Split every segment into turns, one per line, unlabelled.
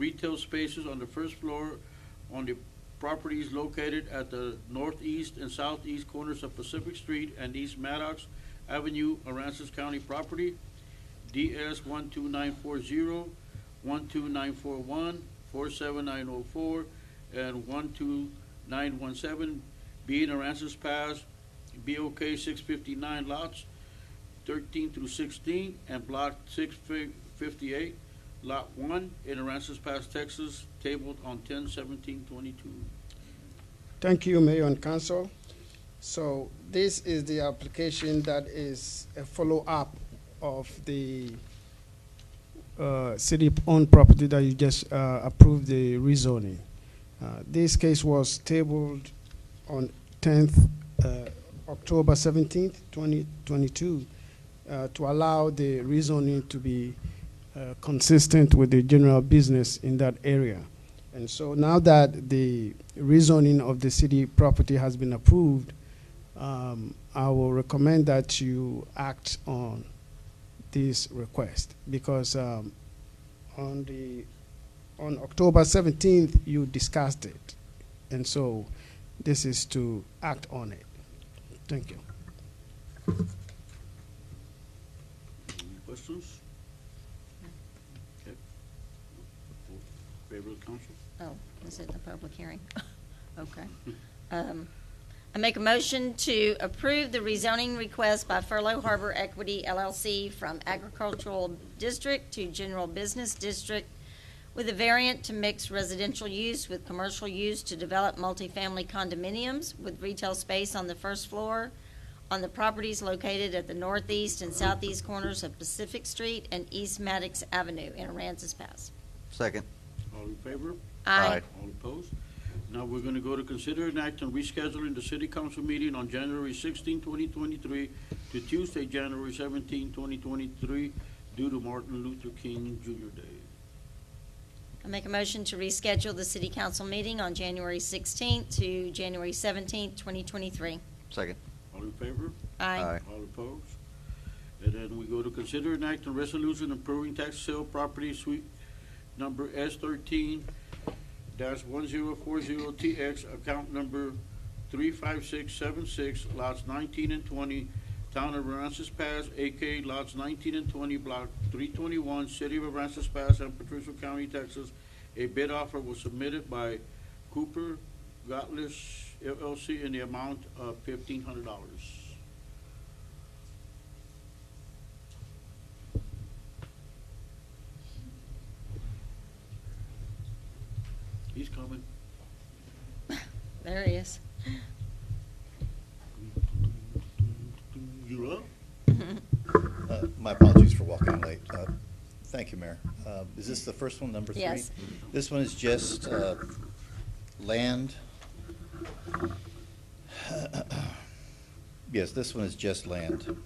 retail spaces on the first floor on the properties located at the northeast and southeast corners of Pacific Street and East Maddox Avenue, Aransas County property. DS 12940, 12941, 47904, and 12917, being Aransas Pass, BOK 659 lots 13 through 16, and Block 658, Lot 1, in Aransas Pass, Texas, tabled on 10/17/22.
Thank you, Mayor and Council. So this is the application that is a follow-up of the uh, city-owned property that you just uh, approved the rezoning. Uh, This case was tabled on 10th, uh, October 17th, 2022, uh, to allow the rezoning to be uh, consistent with the general business in that area. And so now that the rezoning of the city property has been approved, um, I will recommend that you act on this request because um, on the on October 17th you discussed it, and so this is to act on it. Thank you.
Any questions? Okay. Favor of the council?
Oh, is it the public hearing? Okay. Um, I make a motion to approve the rezoning request by Furlough Harbor Equity LLC from agricultural district to general business district with a variant to mix residential use with commercial use to develop multifamily condominiums with retail space on the first floor on the properties located at the northeast and southeast corners of Pacific Street and East Maddox Avenue in Aransas Pass.
Second.
All in favor?
Aye.
All opposed? Now we're going to go to consider an act on rescheduling the city council meeting on January 16, 2023 to Tuesday, January 17, 2023, due to Martin Luther King Jr. Day.
I make a motion to reschedule the city council meeting on January 16th to January 17th, 2023.
Second.
All in favor?
Aye.
All opposed? And then we go to consider an act on resolution approving tax sale property suite number S thirteen one zero four zero TX, account number three five six seven six, lots nineteen and twenty, town of Aransas Pass, AK lots nineteen and twenty, block three twenty-one, city of Aransas Pass and Patricia County, Texas. A bid offer was submitted by Cooper Gottlieb LLC in the amount of fifteen hundred dollars. He's coming.
There he is.
You're up?
Uh, My apologies for walking in late. Uh, Thank you, Mayor. Uh, Is this the first one, number three?
Yes.
This one is just uh, land. Yes, this one is just land.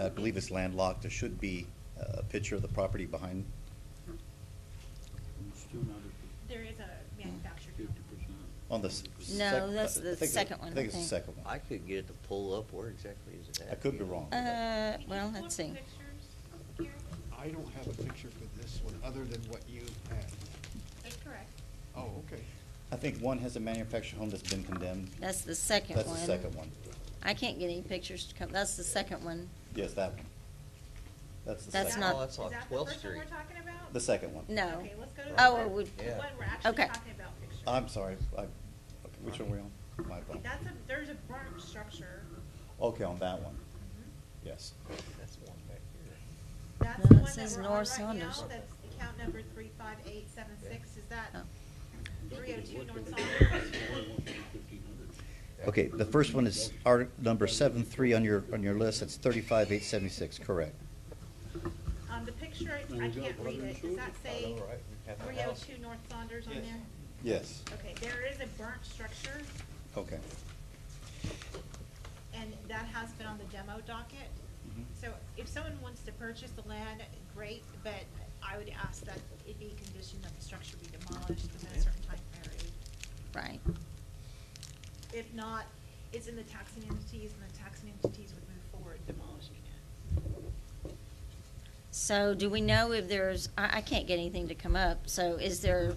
I believe it's landlocked. There should be uh, a picture of the property behind.
Still not at
There is a manufactured
fifty
home.
percent.
On the. s- sec-
No, that's the
I think it-
second one,
I think it's
I
the
think.
second one.
I couldn't get it to pull up. Where exactly is it at?
I could be wrong.
Uh, well,
Can
let's
you pull
see.
up the pictures here?
I don't have a picture for this one, other than what you had.
That's correct.
Oh, okay.
I think one has a manufactured home that's been condemned.
That's the second one.
That's the second one.
I can't get any pictures to come, that's the second one.
Yes, that one. That's the second.
That's
Is that-
not-
Oh, that's on
is that the
12th
first one
Street.
we're talking about?
The second one.
No.
Okay, let's go to the
Oh,
one-
it would-
the
Yeah. Uh,
one we're actually
Okay.
talking about pictures.
I'm sorry, I, which one are we on? My phone.
That's a, there's a burnt structure.
Okay, on that one, yes.
That's the one back here.
That's
No,
the
it
one that
says
we're on
North
right now.
Saunders.
That's account number three five eight seven six. Is that
Oh.
three oh two North
That's
Saunders?
the one I want for fifteen hundred.
Okay, the first one is art, number seven three on your, on your list, it's thirty-five eight seventy-six, correct.
Um, the picture, I
There
I
you go,
can't read
brother and
it. Does that
sister.
say
Oh, All right, we have the
three oh
house.
two North Saunders on
Yes.
there?
Yes,
Okay, there is a burnt structure
okay.
and that has been on the demo docket.
Mhm.
So if someone wants to purchase the land, great, but I would ask that it be conditioned that the structure be demolished within a certain time period.
Right.
If not, it's in the taxing entities, and the taxing entities would move forward demolishing it.
So do we know if there's, I, I can't get anything to come up, so is there